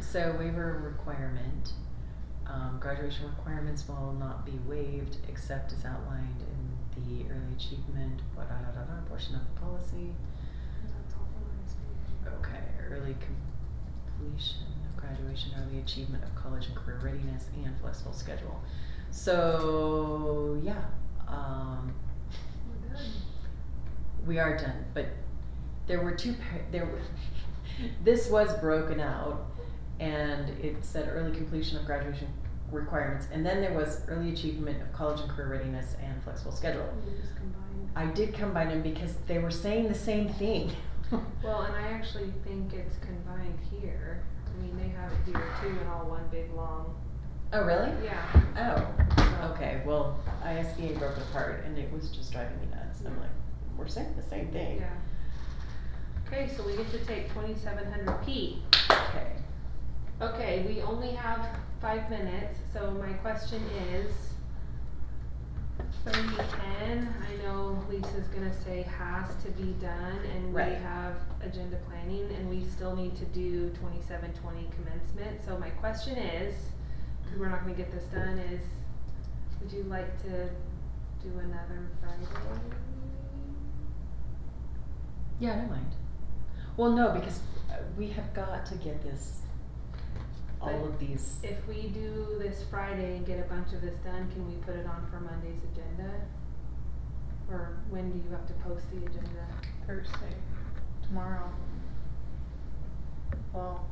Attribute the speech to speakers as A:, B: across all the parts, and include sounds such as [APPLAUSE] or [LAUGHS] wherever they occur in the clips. A: So waiver requirement, um, graduation requirements will not be waived except as outlined in the early achievement, blah, da, da, da, da, portion of the policy. Okay, early completion of graduation, early achievement of college and career readiness, and flexible schedule. So, yeah, um,
B: We're good.
A: we are done, but there were two, par- there were, [LAUGHS] this was broken out, and it said early completion of graduation requirements, and then there was early achievement of college and career readiness and flexible schedule.
B: We just combined.
A: I did combine them because they were saying the same thing. [LAUGHS]
B: Well, and I actually think it's combined here. I mean, they have it here too in all one big long.
A: Oh, really?
B: Yeah.
A: Oh,
B: so-
A: okay, well, ISBA broke apart, and it was just driving me nuts, I'm like, we're saying the same thing.
B: Yeah. Okay, so we get to take twenty-seven hundred P.
A: Okay,
B: Okay, we only have five minutes, so my question is. Thirty ten, I know Lisa's gonna say has to be done and we
A: Right.
B: have agenda planning and we still need to do twenty-seven twenty commencement, so my question is. we we're not gonna get this done is, would you like to do another Friday?
A: yeah, I don't mind. Well, no, because uh, we have got to get this, all of these,
B: If we do this Friday and get a bunch of this done, can we put it on for Monday's agenda? Or when do you have to post the agenda?
C: Thursday, tomorrow. Well.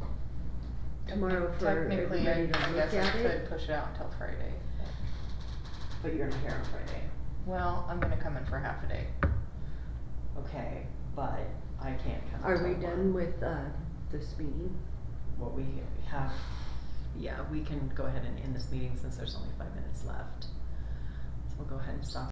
C: I mean,
D: Tomorrow for
C: Technically, I
D: everybody to
C: I
D: look
C: guess I
D: at it?
C: could push it out until Friday.
A: but you're not here on Friday,
C: Well, I'm gonna come in for half a day.
A: okay, but I can't come.
D: Are we
A: until
D: done
A: one.
D: with, uh, this meeting?
A: What we have, yeah, we can go ahead and end this meeting since there's only five minutes left. So we'll go ahead and stop